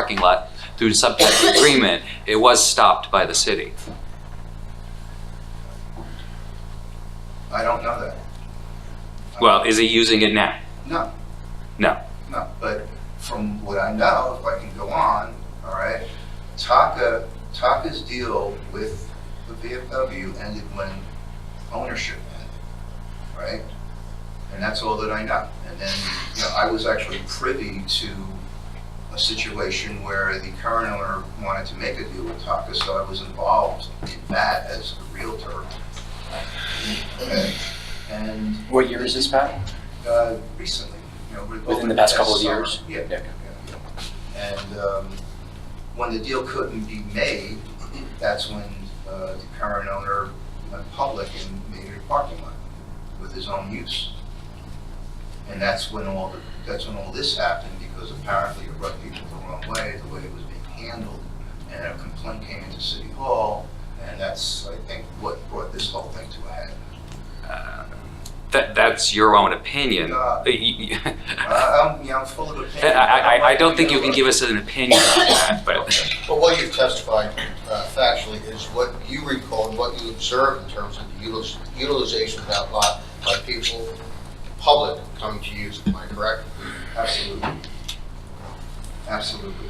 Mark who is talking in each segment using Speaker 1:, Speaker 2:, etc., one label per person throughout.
Speaker 1: parking lot through some type of agreement, it was stopped by the city.
Speaker 2: I don't know that.
Speaker 1: Well, is he using it now?
Speaker 2: No,
Speaker 1: No.
Speaker 2: no, but from what I know, if I can go on, all right, Taka, Taka's deal with the VFW ended when ownership ended, right? And that's all that I know. And then, you know, I was actually privy to a situation where the current owner wanted to make a deal with Taka, so I was involved in that as a realtor. Okay, And
Speaker 3: What year is this, Pat?
Speaker 2: uh, recently, you know. we're-
Speaker 3: Within the past couple of
Speaker 2: summer.
Speaker 3: years?
Speaker 2: Yeah.
Speaker 3: Yeah.
Speaker 2: yeah, yeah. And um, when the deal couldn't be made, that's when uh, the current owner went public and made it a parking lot with his own use. And that's when all, the- that's when all this happened, because apparently it rubbed people the wrong way, the way it was being handled. And a complaint came into City Hall, and that's, I think, what brought this whole thing to a head.
Speaker 1: That, that's your own opinion.
Speaker 2: Uh,
Speaker 1: I,
Speaker 2: Uh, I'm, you know, I'm full of opinion.
Speaker 1: I, I- I don't think you can give us an opinion on that, but,
Speaker 4: But what you've testified uh, factually is what you recall and what you observed in terms of the util- utilization of that lot by people, the public coming to use it, am I correct?
Speaker 2: Absolutely. Absolutely.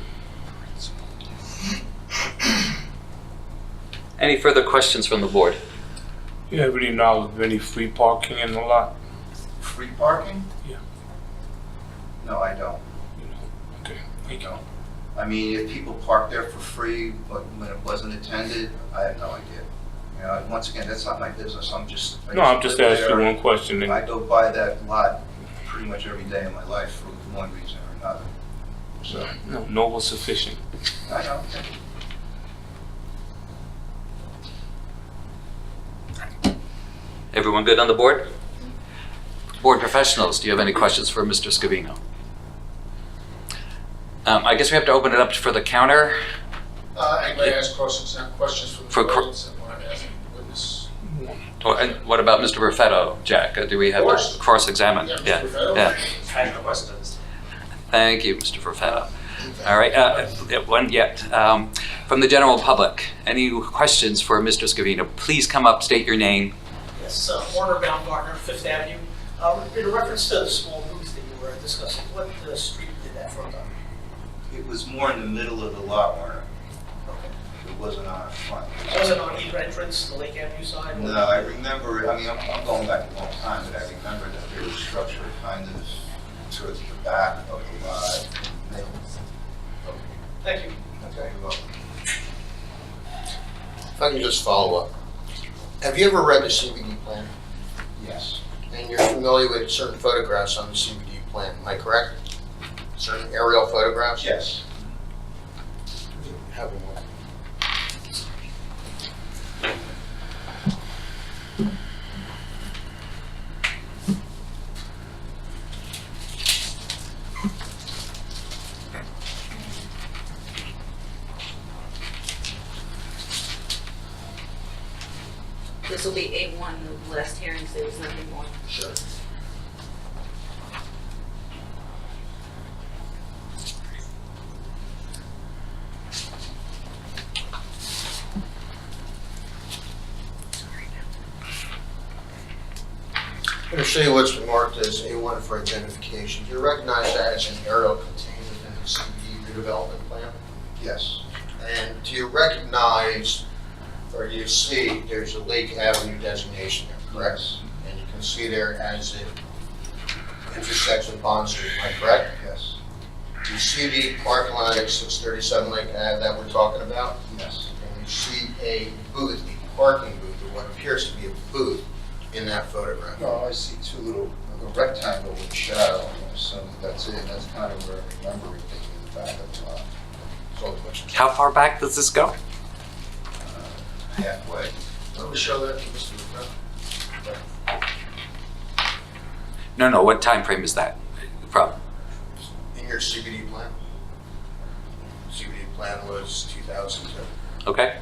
Speaker 1: any further questions from the board?
Speaker 5: You have any knowledge of any free parking in the lot?
Speaker 2: Free parking?
Speaker 5: Yeah.
Speaker 2: No, I don't.
Speaker 5: Okay,
Speaker 2: I
Speaker 5: thank you.
Speaker 2: don't. I mean, if people park there for free, but when it wasn't attended, I have no idea. You know, and once again, that's not my business. I'm just. I
Speaker 5: No, I'm just
Speaker 2: live
Speaker 5: asking
Speaker 2: there.
Speaker 5: one question. and-
Speaker 2: I go by that lot pretty much every day of my life for one reason or another. So,
Speaker 5: No, no was sufficient.
Speaker 2: I don't.
Speaker 1: Everyone good on the board? Board professionals, do you have any questions for Mr. Scavino? Um, I guess we have to open it up for the counter.
Speaker 6: Uh, Anybody has questions, not questions
Speaker 1: For
Speaker 6: from the
Speaker 1: cr-
Speaker 6: audience that want to ask the witness?
Speaker 1: Or- And what about Mr. Perfetto, Jack? Uh, Do we have to
Speaker 6: Of course.
Speaker 1: cross-examine?
Speaker 6: Yeah, Mr.
Speaker 1: Yeah,
Speaker 6: Perfetto.
Speaker 1: yeah.
Speaker 6: I have no questions.
Speaker 1: Thank you, Mr. Perfetto. All right, uh, uh, one yet. Um, From the general public, any questions for Mr. Scavino? Please come up, back, state your name.
Speaker 7: Yes, uh, Warner Baumgartner, Fifth Avenue. Uh, In reference to the small booth that you were discussing, what uh, street did that front on?
Speaker 2: It was more in the middle of the lot, Warner.
Speaker 7: Okay.
Speaker 2: It wasn't on our front.
Speaker 7: Was it on either entrance, the Lake Avenue side? or-
Speaker 2: No, I remember, I mean, I'm, I'm going back a long time, but I remember that there was structure kind of towards the back of the lot.
Speaker 7: Thank you.
Speaker 2: Okay, well,
Speaker 4: If I can just follow up. Have you ever read the CBD plan?
Speaker 2: yes,
Speaker 4: And you're familiar with certain photographs on the CBD plan, am I correct? Certain aerial photographs?
Speaker 2: yes.
Speaker 4: Have one.
Speaker 8: This will be A1, the last hearing, so there's nothing more.
Speaker 4: Sure. I'm going to show you what's marked as A1 for identification. Do you recognize that as an aerial contained within the CBD redevelopment plan?
Speaker 2: Yes,
Speaker 4: And do you recognize, or you see, there's a Lake Avenue designation there, correct?
Speaker 2: correct,
Speaker 4: And you can see there as it intersects with Bond Street, am I correct?
Speaker 2: yes,
Speaker 4: You see the parking lot at 637 Lake Ave that we're talking about?
Speaker 2: yes,
Speaker 4: And you see a booth, a parking booth, or what appears to be a booth in that photograph.
Speaker 2: no, I see two little, a rectangle with shadow, I assume that that's it, that's kind of where I remember it being in the back of uh, the lot,
Speaker 4: That's all the question.
Speaker 1: How far back does this go?
Speaker 2: halfway.
Speaker 4: Let me show that to Mr. McCracken.
Speaker 1: No, no, what time frame is that from?
Speaker 4: In your CBD plan? CBD plan was 2002.
Speaker 1: Okay?